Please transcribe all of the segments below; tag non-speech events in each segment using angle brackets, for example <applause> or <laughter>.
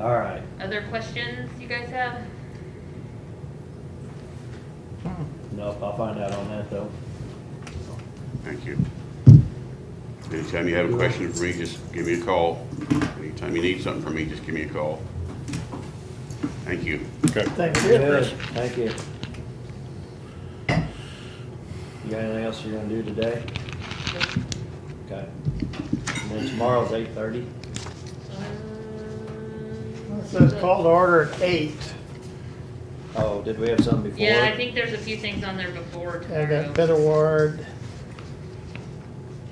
All right, Other questions you guys have? nope, I'll find out on that though. Thank you. Anytime you have a question for me, just give me a call. Anytime you need something from me, just give me a call. Thank you. Okay. Thank you. Thank you. You got anything else you're gonna do today? Okay. And then tomorrow's eight thirty. Um, It says call to order at eight. Oh, did we have something before? Yeah, I think there's a few things on there before I got tomorrow. Bid Award,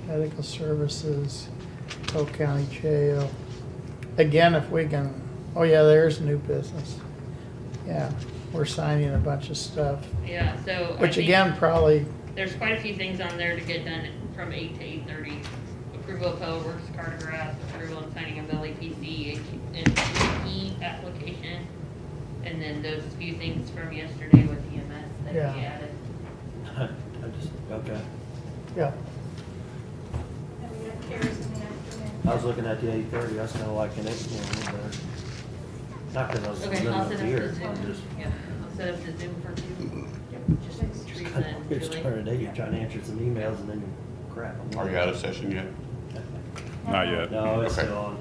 Medical Services, Polk County Jail. Again, if we can, oh yeah, there's new business. Yeah, we're signing a bunch of stuff, Yeah, so. I which think again, probably, There's quite a few things on there to get done from eight to eight thirty. Approval of Public Works cartograph, approval and signing of LAPC and E application. And then those few things from yesterday with EMS that we Yeah. added. <laughs> I just, okay, yeah, And we have carries in the afternoon. I was looking at the eight thirty, that's kinda like an eight, you know, but not cause I was Okay, living I'll up set up the here, Zoom. I'm just. Yeah, I'll set up the Zoom for you. Just trees <laughs> and You're Julie. starting at eight, you're trying to answer some emails and then you crap. I'm Are you out of session yet? Not yet. No, it's Okay. still on.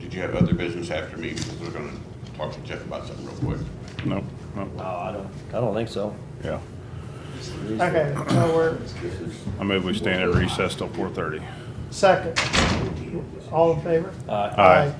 Did you have other business after me? Because we're gonna talk to Jeff about something real quick. No, no, No, Oh, I don't, I don't think so. yeah. okay, so we're, This is I move we stand at recess till four thirty. second. All in favor? Uh, Aye.